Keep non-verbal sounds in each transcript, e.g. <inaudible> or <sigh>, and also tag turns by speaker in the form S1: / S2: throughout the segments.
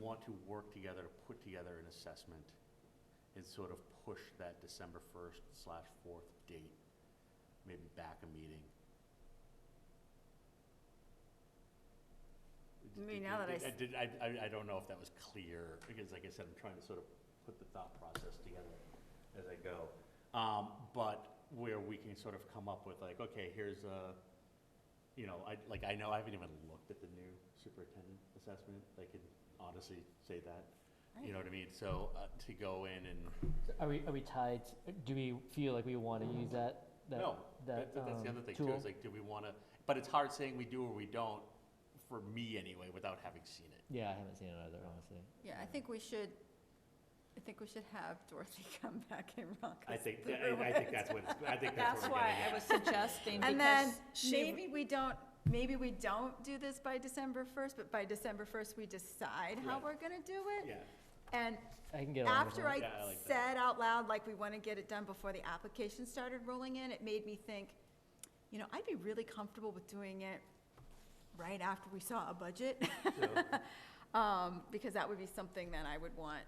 S1: want to work together to put together an assessment and sort of push that December first slash fourth date, maybe back a meeting.
S2: I mean, now that I s-
S1: Did, I, I, I don't know if that was clear, because like I said, I'm trying to sort of put the thought process together as I go. Um, but where we can sort of come up with like, okay, here's a, you know, I, like, I know I haven't even looked at the new superintendent assessment, I can honestly say that. You know what I mean? So, uh, to go in and,
S3: Are we, are we tied, do we feel like we want to use that, that,
S1: no,
S3: that
S1: that, that's the
S3: um,
S1: other thing too,
S3: tool?
S1: is like, do we wanna, but it's hard saying we do or we don't, for me anyway, without having seen it.
S3: Yeah, I haven't seen it either, honestly.
S2: Yeah, I think we should, I think we should have Dorothy <laughs> come back and rock
S1: I
S2: us
S1: think,
S2: through
S1: I, I
S2: it.
S1: think that's what, it's- I think that's
S4: That's
S1: what we're
S4: why
S1: getting
S4: I
S1: at.
S4: was suggesting,
S2: And then
S4: because she,
S2: maybe we don't, maybe we don't do this by December first, but by December first, we decide how
S1: Right.
S2: we're gonna do it.
S1: Yeah,
S2: And
S3: I can get on with
S2: after
S3: that.
S2: I
S1: Yeah, I like that.
S2: said out loud, like, we want to get it done before the application started rolling in, it made me think, you know, I'd be really comfortable with doing it right after we saw a budget. <laughs> Um, because that would be something that I would want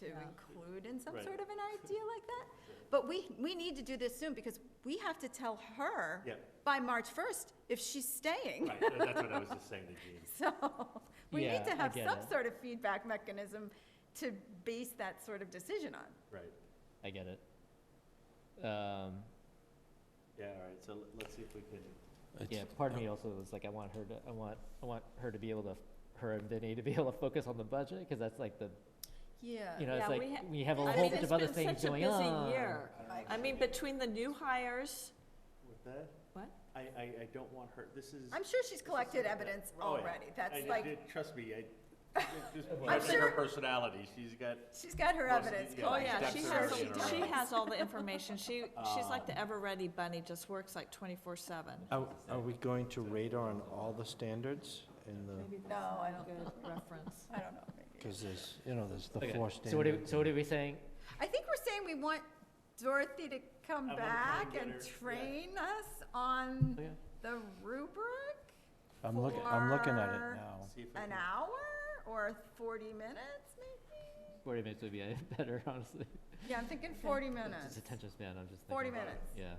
S2: to
S4: Yeah.
S2: include in some
S1: Right.
S2: sort of an idea
S1: <laughs>
S2: like that. But we, we need to do this soon because we have to tell her
S1: yeah,
S2: by March first if she's staying.
S1: right, that- that's what I was just saying to Jean.
S2: <laughs> So, we need to
S3: Yeah, I
S2: have
S3: get
S2: some
S3: it.
S2: sort of feedback mechanism to base that sort of decision on.
S1: right,
S3: I get it. Um,
S1: yeah, all right, so l- let's see if we can,
S3: yeah, part of me also was like, I want her to, I want, I want her to be able to, her and Vinny to be able to focus on the budget, because that's like the,
S2: Yeah.
S3: you know, it's
S4: Uh, yeah,
S3: like,
S4: we ha-
S3: we have a whole
S4: I mean,
S3: bunch
S4: it's
S3: of other
S4: been
S3: things
S4: such a
S3: going
S4: busy
S3: on.
S4: year. I mean, between the new hires,
S1: with that,
S4: what?
S1: I, I, I don't want her, this is.
S2: I'm sure she's collected
S1: something that-
S2: evidence
S1: Oh, yeah.
S2: already.
S1: I
S2: That's
S1: did-
S2: like,
S1: did- Trust me, I, just
S3: I'm
S1: watching her
S2: sure-
S1: personality, she's got,
S2: she's got her
S1: Most of
S2: evidence
S1: the- yeah,
S4: Oh,
S1: like
S4: yeah,
S2: collected.
S1: steps
S4: she
S1: are
S4: has,
S1: already in a
S4: she
S1: row.
S4: has all the information. She, she's like
S1: Um,
S4: the ever-ready bunny, just works like twenty-four seven.
S5: Are, are we going to radar on all the standards in the,
S2: No, I don't think-
S4: Reference.
S2: I don't know, maybe.
S5: because there's, you know, there's the
S3: Okay,
S5: four
S3: So what are,
S5: standards.
S3: so what are we saying?
S2: I think we're saying we want Dorothy to come
S1: I wanna try and
S2: back
S1: get
S2: and
S1: her- yeah.
S2: train us on
S3: Okay.
S2: the rubric?
S5: I'm looking, I'm looking at it
S2: for
S3: Oh.
S5: now.
S1: see if I
S2: An
S1: can-
S2: hour or forty minutes, maybe?
S3: Forty minutes would be <laughs> uh, better, honestly.
S2: Yeah, I'm thinking forty minutes.
S3: Just attention span, I'm just thinking.
S2: Forty
S3: about-
S2: minutes,
S3: Yeah,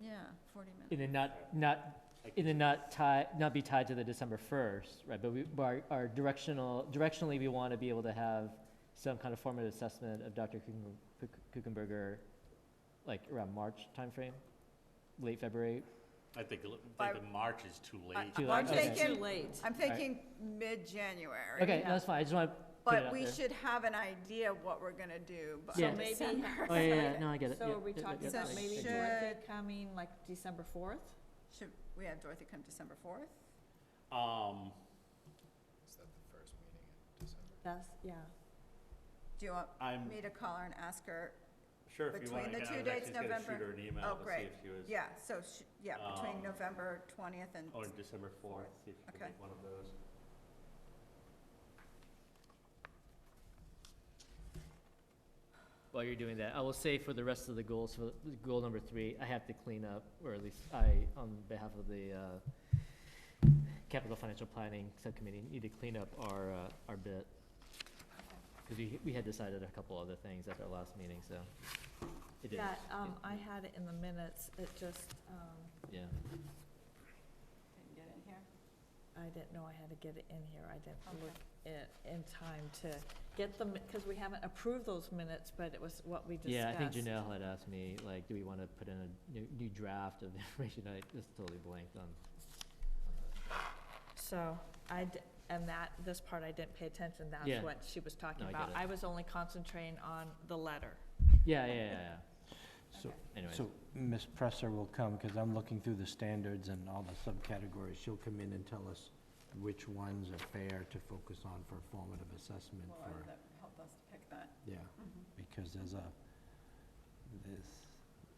S2: yeah, forty minutes.
S3: and then not, not
S1: I-
S3: And then not tie, not be tied to the December first, right, but we, but our, our directional, directionally, we wanna be able to have some kind of formative assessment of Dr. Kuchen- Kuch- Kuchenberger, like around March timeframe, late February,
S1: I think, l- I
S2: By-
S1: think the March is too late.
S2: I-
S3: Too
S2: I'm
S3: late, okay.
S4: Too
S2: thinking,
S4: late.
S2: I'm thinking mid-January.
S3: okay, no, that's fine, I just wanna put it
S2: But
S3: out
S2: we
S3: there.
S2: should have an idea of what we're gonna do by
S3: So
S2: <laughs>
S4: maybe-
S2: December.
S3: Oh, yeah, yeah, no, I get it,
S4: So
S3: yeah,
S4: are we
S3: yeah, yeah,
S4: talking
S3: yeah,
S2: about
S4: about
S3: I-
S4: maybe
S3: I
S2: should-
S3: get it.
S4: Dorothy coming like December fourth?
S2: Should we have Dorothy come December fourth?
S1: Um,
S4: That's, yeah.
S2: Do you want
S1: I'm
S2: me to call her and ask her?
S1: sure if you
S2: Between
S1: want,
S2: the
S1: I
S2: two
S1: was
S2: dates,
S1: actually just gonna shoot
S2: November-
S1: her an
S2: Oh,
S1: email to see
S2: great.
S1: if she was,
S2: Yeah, so, sh- yeah,
S1: Um,
S2: between
S1: oh,
S2: November twentieth and,
S1: or December fourth, see if she
S2: Okay.
S1: can make one of those.
S3: While you're doing that, I will say for the rest of the goals, for the- goal number three, I have to clean up, or at least I, on behalf of the, uh, capital financial planning subcommittee, need to clean up our, uh, our bit. Cause we, we had decided a couple other things at our last meeting, so. it didn't-
S4: Yeah, um,
S3: it-
S4: I had it in the minutes. It just, um,
S3: Yeah,
S2: Didn't get in here.
S4: I didn't know I had to get it in here. I didn't
S2: Okay.
S4: look it in time to get them, because we haven't approved those minutes, but it was what we discussed.
S3: yeah, I think Janelle had asked me, like, do we wanna put in a new, new draft of <laughs> information, I just totally blanked on.
S4: So, I, d- and that, this part I didn't pay attention,
S3: Yeah.
S4: that's what she was talking
S3: No, I
S4: about.
S3: get it.
S4: I was only concentrating on the letter.
S3: Yeah, yeah, yeah, yeah,
S5: So,
S3: anyways,
S5: so Ms. Presser will come, because I'm looking through the standards and all the subcategories. She'll come in and tell us which ones are fair to focus on for formative assessment for,
S2: that helped us to pick that.
S5: yeah, because there's a, this,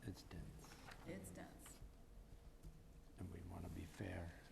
S5: it's dense.
S2: It's dense.
S5: And we want to be fair.